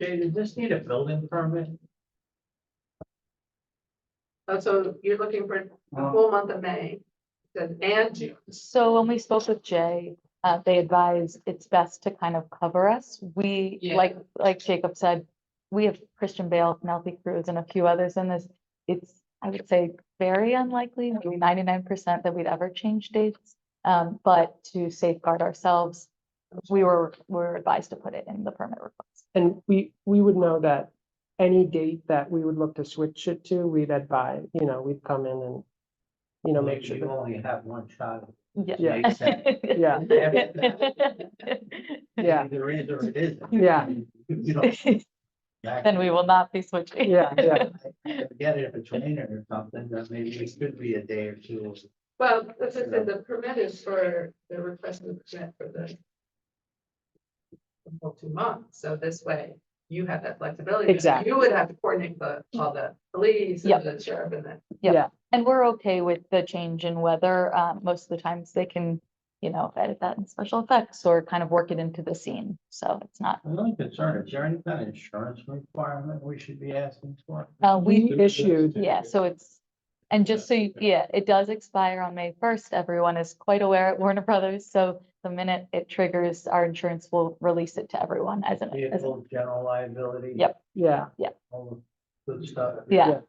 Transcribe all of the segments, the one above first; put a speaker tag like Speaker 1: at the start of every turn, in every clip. Speaker 1: Jay, does this need a building permit?
Speaker 2: Uh, so you're looking for the
Speaker 1: Well-
Speaker 2: whole month of May, Says, and June.
Speaker 3: So when we spoke with Jay, uh, they advised it's best to kind of cover us. We,
Speaker 2: Yeah.
Speaker 3: like, like Jacob said, we have Christian Bale, Penelope Cruz and a few others in this. It's, I would say, very unlikely, maybe ninety-nine percent that we'd ever change dates. Um, but to safeguard ourselves, we were, we were advised to put it in the permit request.
Speaker 4: And we, we would know that any date that we would look to switch it to, we'd advise, you know, we'd come in and, you know, make sure
Speaker 1: You
Speaker 4: that,
Speaker 1: only have one shot.
Speaker 4: Yeah.
Speaker 1: Makes sense.
Speaker 4: yeah, yeah,
Speaker 1: Either is or it isn't.
Speaker 4: Yeah.
Speaker 1: You don't.
Speaker 3: Then we will not be switching.
Speaker 4: yeah, yeah.
Speaker 1: Get it if it's raining or something, then maybe it could be a day or two.
Speaker 2: Well, as I said, the permit is for, the request of the permit for the the whole two months, so this way you have that flexibility. but
Speaker 4: Exactly.
Speaker 2: You would have to coordinate the, all the police
Speaker 3: Yep.
Speaker 2: and the sheriff and the
Speaker 3: And we're okay with the change in weather. Uh, most of the times they can, you know, edit that in special effects or kind of work it into the scene. So it's not,
Speaker 1: My only concern, is there any kind of insurance requirement we should be asking for?
Speaker 3: uh, we,
Speaker 4: We issued,
Speaker 3: yeah, so it's, and just so, you- yeah, it does expire on May first. Everyone is quite aware at Warner Brothers. So the minute it triggers, our insurance will release it to everyone as an, as, a-
Speaker 1: Vehicle, general liability.
Speaker 3: Yep.
Speaker 4: yeah,
Speaker 1: All the good stuff.
Speaker 3: yeah,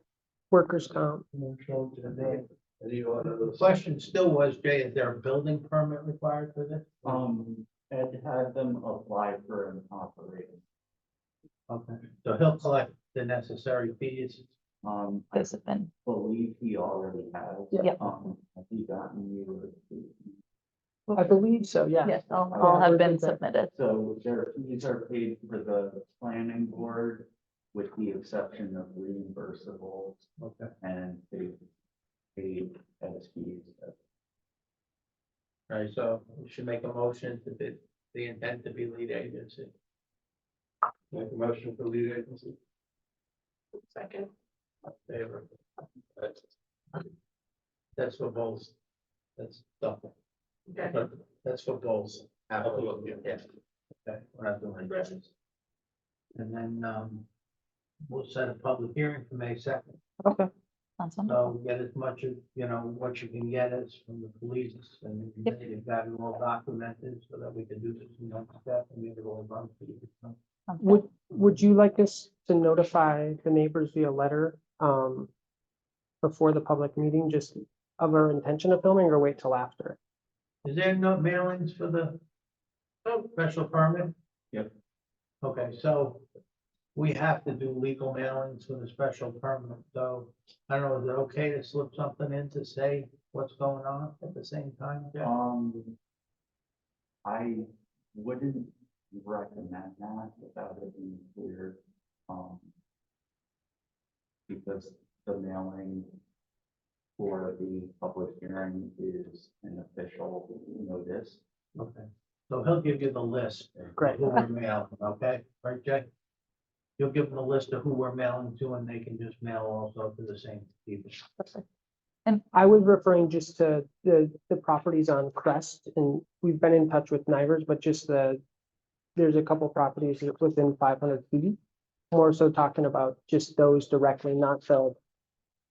Speaker 4: workers' comp.
Speaker 1: Control to the name. The order. The question still was, Jay, is there a building permit required for this?
Speaker 5: Um, Ed had them apply for an operating,
Speaker 1: Okay, so he'll collect the necessary fees.
Speaker 5: um, I
Speaker 3: those have been,
Speaker 5: believe he already has.
Speaker 4: Yeah.
Speaker 3: Yep.
Speaker 5: Um, have you gotten you,
Speaker 4: I believe so, yeah.
Speaker 3: yes, all,
Speaker 5: Yeah,
Speaker 3: all have
Speaker 4: we're
Speaker 3: been
Speaker 4: good there.
Speaker 3: submitted.
Speaker 5: so their fees are paid for the planning board with the exception of reimbursables
Speaker 1: Okay.
Speaker 5: and they paid as fees.
Speaker 1: All right, so we should make a motion to the, the intent to be lead agency. Make a motion for lead agency.
Speaker 2: second.
Speaker 1: Favor. That's for both. That's double.
Speaker 2: Okay.
Speaker 1: That's for both. Absolutely. Yes. Okay, we're not doing addresses. And then, um, we'll set a public hearing for May second.
Speaker 3: Sounds wonderful.
Speaker 1: So get as much of, you know, what you can get is from the police and if
Speaker 3: Yep.
Speaker 1: they've got it all documented so that we can do this in one step and maybe it'll run for you. so.
Speaker 3: Sounds good.
Speaker 4: Would, would you like us to notify the neighbors via letter, um, before the public meeting, just of our intention of filming or wait till after?
Speaker 1: Is there no mailings for the Oh, special permit?
Speaker 5: Yep.
Speaker 1: Okay, so we have to do legal mailings for the special permit, so I don't know, is it okay to slip something in to say what's going on at the same time? Jeff?
Speaker 5: Um, I wouldn't recommend that without it being clear, um, because the mailing for the public hearing is an official notice.
Speaker 1: Okay, so he'll give you the list. of
Speaker 4: Great.
Speaker 1: Who we're mailing, okay, right, Jay? You'll give them a list of who we're mailing to, and they can just mail also to the same people.
Speaker 4: I was referring just to the, the properties on Crest and we've been in touch with Nivers, but just the, there's a couple properties that are within five hundred feet. More so talking about just those directly, not the, the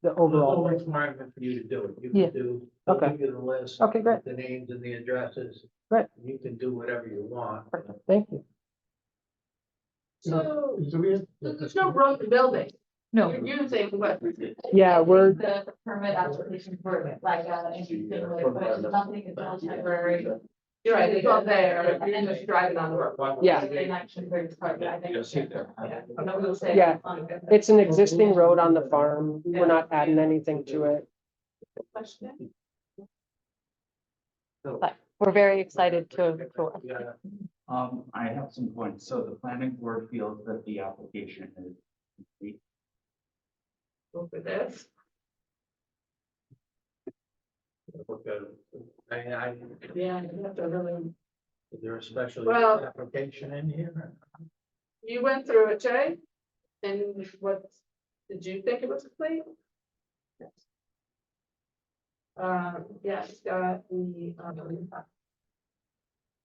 Speaker 1: There's no
Speaker 4: overall.
Speaker 1: requirement for you to do it, you
Speaker 3: Yeah.
Speaker 1: can do, they'll
Speaker 4: Okay.
Speaker 1: give you the list.
Speaker 4: Okay, great.
Speaker 1: The names and the addresses.
Speaker 4: Great.
Speaker 1: You can do whatever you want.
Speaker 4: Thank you.
Speaker 2: So,
Speaker 1: Is there-
Speaker 2: so there's no broken building,
Speaker 3: No,
Speaker 2: you're using what.
Speaker 4: Yeah, we're,
Speaker 2: The permit application for it, like, uh,
Speaker 3: nothing is all temporary.
Speaker 2: You're right, it's all there, you're just driving on the road.
Speaker 4: Yeah.
Speaker 2: They might should bring it forward, I think. Yeah, no, we'll say
Speaker 4: Yeah.
Speaker 2: on the-
Speaker 4: it's an existing road on the farm. We're not adding anything to it.
Speaker 2: Question?
Speaker 5: So,
Speaker 3: But- we're very excited to, to work.
Speaker 1: Yeah.
Speaker 5: um, I have some points. So the planning board feels that the application is complete.
Speaker 2: Go for this.
Speaker 1: Okay. I mean, I,
Speaker 2: Yeah, you have to really,
Speaker 1: is there a special
Speaker 2: Well-
Speaker 1: application in here?
Speaker 2: you went through it, Jay? And what, did you think it was complete? Um, yeah, it's got Uh, the, um,